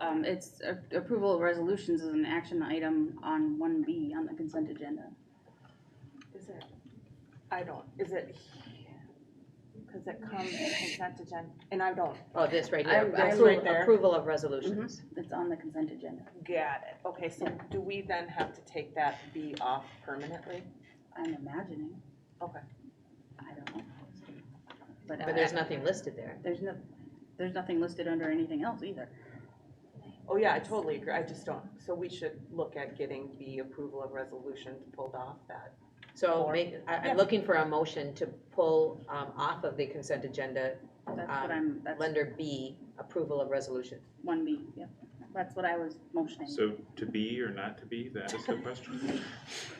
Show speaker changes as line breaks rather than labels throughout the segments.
Um, it's uh, approval of resolutions is an action item on one B on the consent agenda.
Is it, I don't, is it, because it comes in consent agenda, and I don't,
Oh, this right
I-
here,
I
will-
appro- approval of resolutions.
It's on the consent agenda.
get it. Okay, so do we then have to take that B off permanently?
I'm imagining.
Okay.
I don't know.
But there's nothing listed there.
There's no, there's nothing listed under anything else either.
Oh, yeah, I totally agree, I just don't, so we should look at getting the approval of resolutions pulled off that.
So
Or-
make, I,
Yeah.
I'm looking for a motion to pull, um, off of the consent agenda,
That's
Um,
what I'm, that's
lender B, approval of resolution.
one B, yep. That's what I was motioning.
So to be or not to be, that is the question?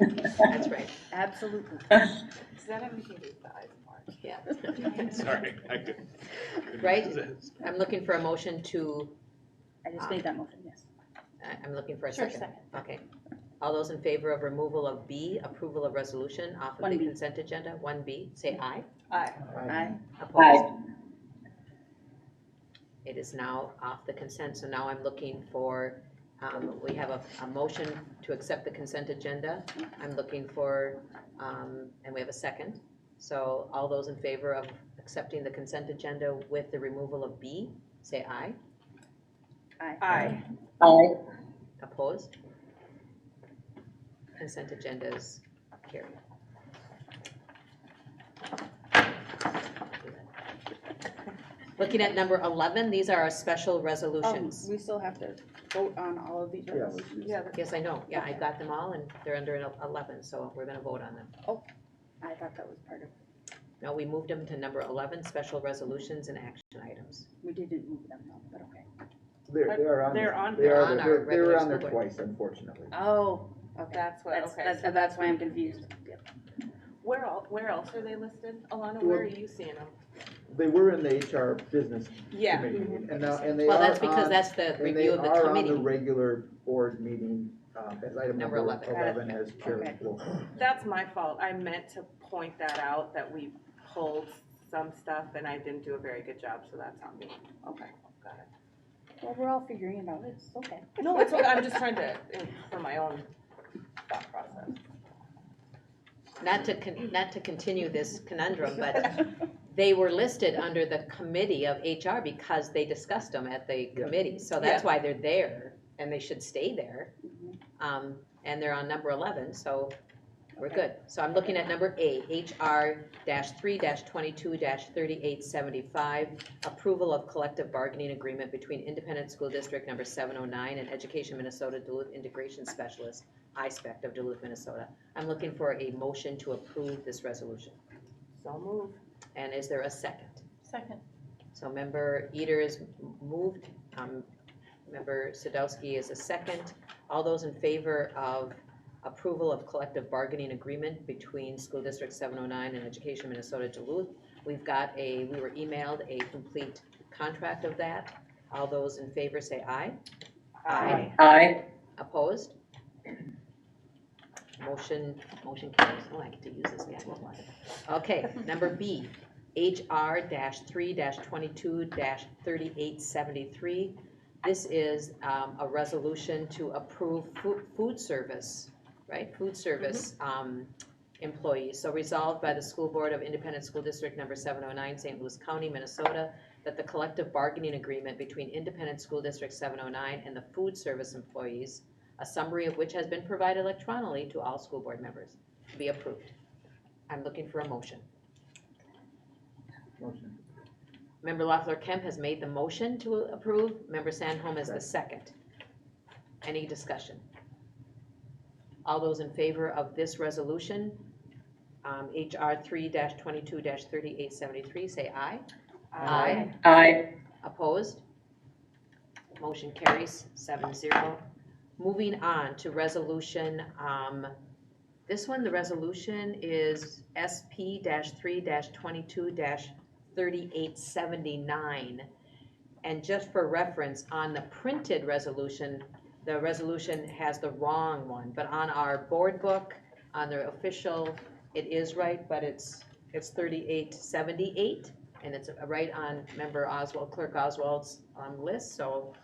That's right,
Absolutely.
Does that have anything to do with the eyes part?
yeah.
Sorry, I couldn't. couldn't
Right?
resist.
I'm looking for a motion to,
I just made that motion, yes.
I, I'm looking for a second. Okay. All those in favor of removal of B, approval of resolution off of the
1B.
consent agenda, one B, say aye.
Aye.
Aye.
Opposed? It is now off the consent, so now I'm looking for, um, we have a, a motion to accept the consent agenda. I'm looking for, um, and we have a second. So all those in favor of accepting the consent agenda with the removal of B, say aye.
Aye.
Opposed? Consent agenda is carried. Looking at number 11, these are our special
Um,
Oh,
resolutions.
we still have to vote on all of these
Yeah,
ones.
let's just-
Yeah,
Yes, I know, yeah, I got them all, and they're under 11, so we're gonna vote on them.
I thought that was part of,
Now, we moved them to number 11, special resolutions and action items.
we didn't move them though, but okay.
They're, they're on,
They're on-
they are,
on our
they're, they
regular
were on there
school board.
twice, unfortunately.
Oh, okay.
that's what,
That's,
okay,
that's,
so
that's why I'm confused.
where el, where else are they listed? Alana, where are you seeing them?
They were in the HR business
Yeah,
committee, and now, and
Mm-hmm.
they are
Well,
on.
that's because that's the
and they
review of the
are on the
committee.
regular board meeting, um, as item
Number
number
11.
eleven as chair.
Okay.
will-
that's my fault, I meant to point that out, that we pulled some stuff and I didn't do a very good job, so that's on me.
Okay.
Got it.
Well, we're all figuring it out. It's okay.
No, it's okay, I'm just trying to, for my own thought process.
Not to, con- not to continue this conundrum, but they were listed under the committee of HR because they discussed them at the
Yeah.
committee. So that's why they're there and they should stay there. Um, and they're on number eleven, so we're
Okay.
good. So I'm looking at number A, HR three twenty-two thirty-eight seventy-five. Approval of collective bargaining agreement between Independent School District number seven oh nine and Education Minnesota Duluth Integration Specialist, ISPEC E of Duluth, Minnesota. I'm looking for a motion to approve this resolution.
So move.
And is there a second?
Second.
So member Eater is moved, um, member Sadowski is a second. All those in favor of approval of collective bargaining agreement between School District seven oh nine and Education Minnesota Duluth. We've got a, we were emailed a complete contract of that. All those in favor say aye.
Aye.
Opposed? Motion, motion carries. Oh, I get to use this guy. Okay, number B, HR three twenty-two thirty-eight seventy-three. This is, um, a resolution to approve food, food service, right? Food service, um, employees. So resolved by the School Board of Independent School District Number seven oh nine, St. Louis County, Minnesota, that the collective bargaining agreement between Independent School District seven oh nine and the food service employees, a summary of which has been provided electronically to all school board members, be approved. I'm looking for a motion.
Motion.
Member Loeffler Kemp has made the motion to approve, member Sandholm is the second. Any discussion? All those in favor of this resolution, um, HR three twenty-two thirty-eight seventy-three, say aye. Aye. Opposed? Motion carries seven zero. Moving on to resolution, um, this one, the resolution is SP three twenty-two thirty-eight seventy-nine. And just for reference, on the printed resolution, the resolution has the wrong one, but on our board book, on the official, it is right, but it's, it's thirty-eight seventy-eight and it's right on member Oswald, Clerk Oswald's um, list, so